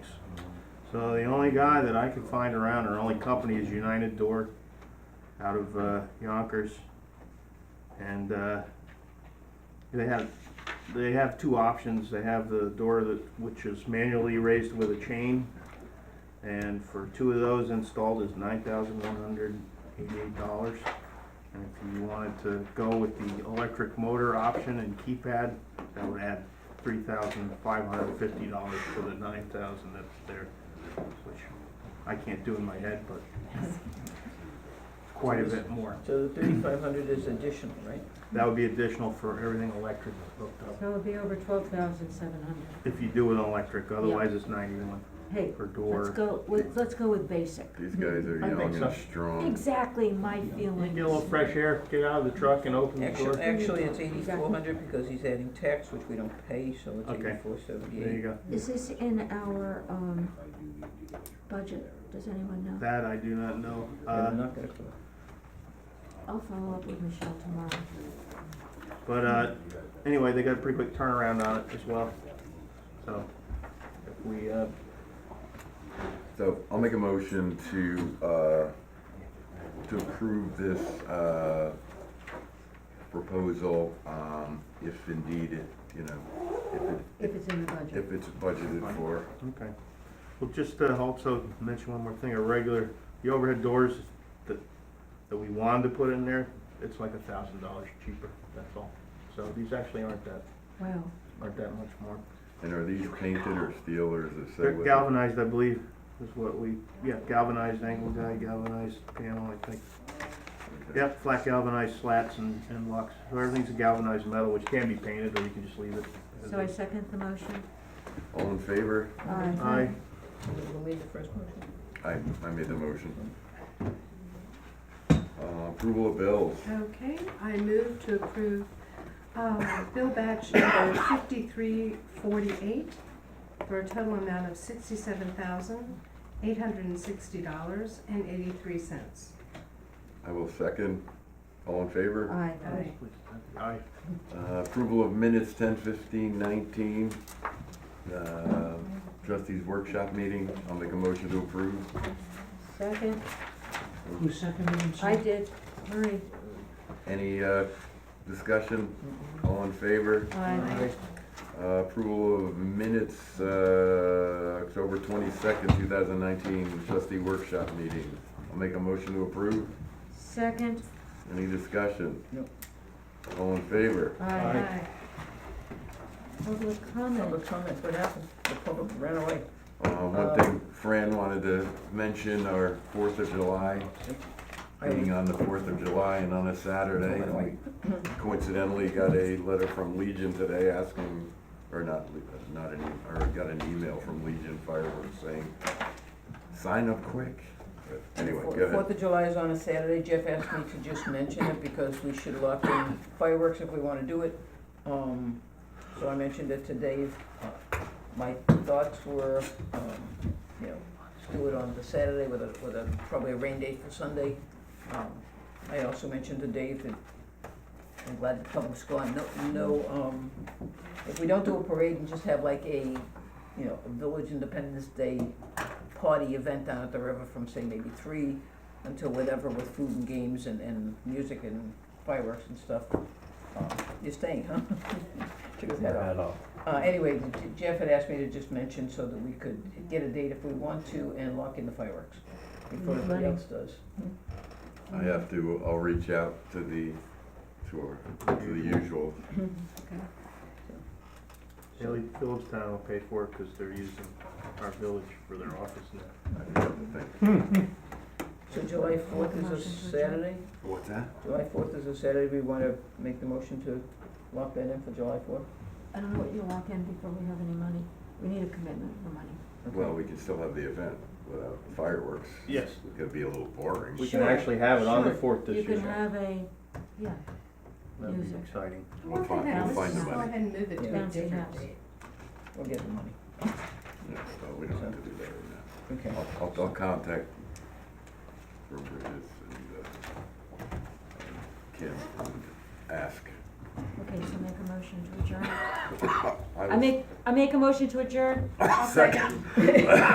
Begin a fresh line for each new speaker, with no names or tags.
So the only guy that I could find around, or only company is United Door out of uh, Yonkers. And uh, they have, they have two options. They have the door that, which is manually raised with a chain. And for two of those installed is nine thousand one hundred eighty-eight dollars. And if you wanted to go with the electric motor option and keypad, that would add three thousand five hundred fifty dollars to the nine thousand that's there, which I can't do in my head, but it's quite a bit more.
So the thirty-five hundred is additional, right?
That would be additional for everything electric that's hooked up,
So it'll be over twelve thousand seven hundred.
if you do it electric, otherwise it's ninety-one
Hey,
per
let's
door.
go, with- let's go with basic.
These guys are
I think
young and
so.
strong.
Exactly my
You
feelings.
Get a little fresh air, get out of the truck and open the door.
Actually,
There
actually, it's eighty-four hundred because he's adding tax, which we don't pay, so it's
Okay.
eighty-four
you
seventy-eight.
go.
Is this in our, um, budget? Does anyone know?
That I do not know.
I'm
Uh,
not gonna, go.
I'll follow up with Michelle tomorrow.
But uh, anyway, they got a pretty quick turnaround on it as well. So if we, uh,
So I'll make a motion to, uh, to approve this, uh, proposal, um, if indeed it, you know, if
If
it,
it's in the budget.
if it's budgeted for.
okay. Well, just to also mention one more thing, a regular, the overhead doors that, that we wanted to put in there, it's like a thousand dollars cheaper, that's all. So these actually aren't that,
Wow.
aren't that much more.
And are these painted or steel or is it say
They're
what?
galvanized, I believe, is what we, yeah, galvanized angle guy, galvanized panel, I think.
Okay.
Yep, flat galvanized slats and, and locks. So everything's a galvanized metal, which can be painted, or you can just leave it. as
So I
is.
second the motion.
All in favor?
Aye.
we'll need the first motion.
I, I made the motion. Uh, approval of bills.
Okay, I move to approve um, bill batch number 5348 for a total amount of $67,860.83.
I will second. All in favor?
Aye.
Aye.
Aye.
Uh, approval of minutes ten fifteen nineteen. Uh, trustees workshop meeting. I'll make a motion to approve.
Second,
Who seconded it?
I did. Marie?
Any, uh, discussion? All in favor?
Aye.
Uh, approval of minutes, uh, October twenty-second, two thousand nineteen, trustee workshop meeting. I'll make a motion to approve.
Second?
Any discussion?
No.
All in favor?
Aye. Public comment?
Public comment, what happened? The public ran away.
Uh, one thing Fran wanted to mention, our Fourth of July, meeting on the Fourth of July and on a Saturday. and we Coincidentally, got a letter from Legion today asking, or not, Le- not an, e- or got an email from Legion Fireworks saying, sign up quick. But Anyway, go ahead.
Fourth of July is on a Saturday. Jeff asked me to just mention it because we should lock in fireworks if we wanna do it. Um, so I mentioned it today. Uh, My thoughts were, um, you know, let's do it on the Saturday with a, with a, probably a rain date for Sunday. Um, I also mentioned to Dave that I'm glad the public's gone. No, no, um, if we don't do a parade and just have like a, you know, a Village Independence Day party event down at the river from say maybe three until whatever with food and games and, and music and fireworks and stuff. Uh, You're staying, huh? Took his head off. Uh, anyway, J- Jeff had asked me to just mention so that we could get a date if we want to and lock in the fireworks before everybody else does.
I have to, I'll reach out to the, to our, to the usual.
Haley Phillips Town will pay for it, cause they're using our village for their office now.
I forget the thing.
So July fourth is
Motion to
a
adjourn.
Saturday?
What's that?
July fourth is a Saturday, we wanna make the motion to lock that in for July fourth?
I don't know what you lock in before we have any money. We need a commitment for money.
Well, we can still have the event without fireworks.
Yes.
It's gonna be a little boring.
We can actually have it on the
Sure.
fourth this
You
year.
can have a, yeah,
That'd be
music.
exciting.
We'll find-
we'll
find
Let's
the
just go
money.
ahead and move it to a
Bouncy
different
house.
date.
We'll get the money,
Yeah, so we don't have to do that right now.
okay.
I'll, I'll, I'll contact whoever it is and, uh, Kim and ask.
okay, so make a motion to adjourn.
I
I
will
make, I make a motion to adjourn.
second.